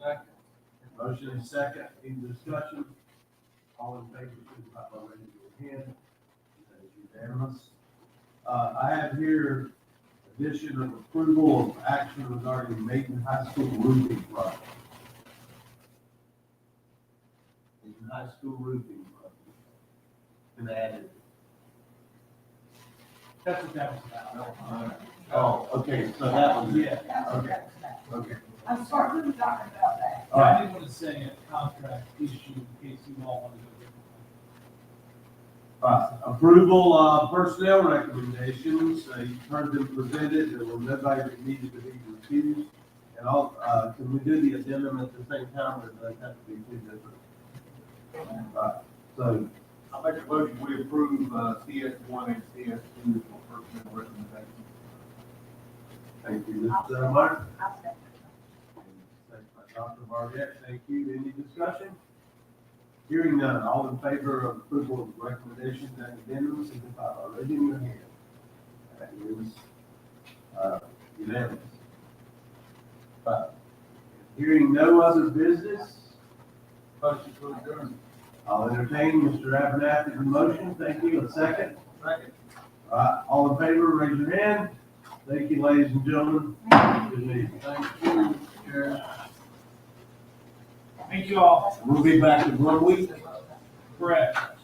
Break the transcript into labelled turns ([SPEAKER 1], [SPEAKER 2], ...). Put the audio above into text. [SPEAKER 1] Second. Motion is second, any discussion? All in favor, signify by raising your hand. That is unanimous. Uh, I have here addition of approval of action regarding Maiden High School roofing project. Maiden High School roofing project. And added.
[SPEAKER 2] That's what that was about.
[SPEAKER 1] Oh, okay, so that was it,
[SPEAKER 2] Yeah,
[SPEAKER 3] That's what that was about.
[SPEAKER 1] okay.
[SPEAKER 3] I'm sorry, we were talking about that.
[SPEAKER 1] All right,
[SPEAKER 2] I did want to say a contract issue in case you all want to go different.
[SPEAKER 1] Uh, Approval of personnel recommendations, uh, you've heard them presented, there were nobody that needed to be refused. And all, uh, can we do the addendum at the same time, or does that have to be two different? Right, So,
[SPEAKER 4] I make a motion, we approve, uh, CS one and CS two for personnel recommendations.
[SPEAKER 1] thank you, Mr. Martin.
[SPEAKER 3] I'll say.
[SPEAKER 1] Thanks, by Dr. Barnett, thank you, any discussion? Hearing none, all in favor of approval of recommendations and addendums, signify by raising your hand. That is, uh, unanimous. Five. Hearing no other business,
[SPEAKER 4] Motion to adjourn.
[SPEAKER 1] I'll entertain Mr. Abernathy's motion, thank you, a second.
[SPEAKER 4] Second.
[SPEAKER 1] All right, all in favor, raise your hand, thank you, ladies and gentlemen. Good evening.
[SPEAKER 4] Thank you, Chair.
[SPEAKER 2] Thank you all.
[SPEAKER 1] We'll be back in one week.
[SPEAKER 2] Correct.